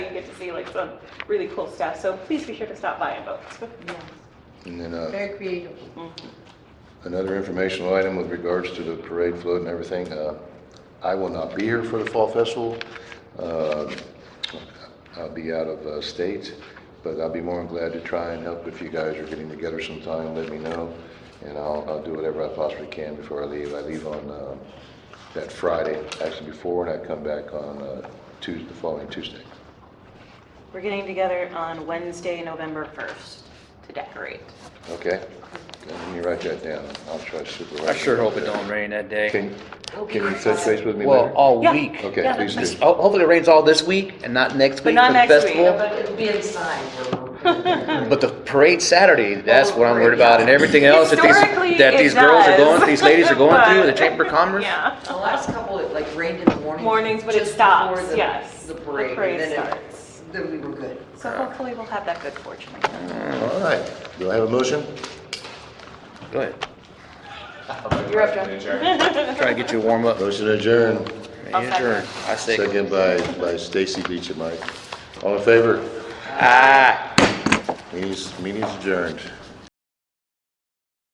get to see like some really cool stuff. So please be sure to stop by and vote. Yes, And then uh, very creative. another informational item with regards to the parade float and everything. uh, I will not be here for the Fall Festival. Uh, I'll be out of uh, state, but I'll be more than glad to try and help if you guys are getting together sometime, let me know. And I'll, I'll do whatever I possibly can before I leave. I leave on uh, that Friday, actually before, and I come back on uh, Tuesday, the following Tuesday. We're getting together on Wednesday, November 1st to decorate. Okay? Let me write that down. I'll try to supervise. I sure hope it don't rain that day. Can, can you touch base with me later? Well, all Yeah. week. Okay, Yeah. please do. Ho- Hopefully it rains all this week and not next But week not for the next week. festival. But it'll be inside. But the parade Saturday, that's what I'm worried about and everything else that Historically, these, that it these girls are does. going, these ladies are going through, the But- Chamber of Commerce. Yeah. The last couple, it like rained in the morning. Mornings, but it just before stops, the- yes. The parade. The parade and then it- starts. Then we were good. So hopefully we'll have that good fortune. All right, do I have a motion? Go ahead. You're up, John. Try to get you a warm up. Motion adjourned, I'll second. Adjourn. I say, second by, by Stacy Beach and Mike. All in favor? ah. Meeting's, meeting's adjourned.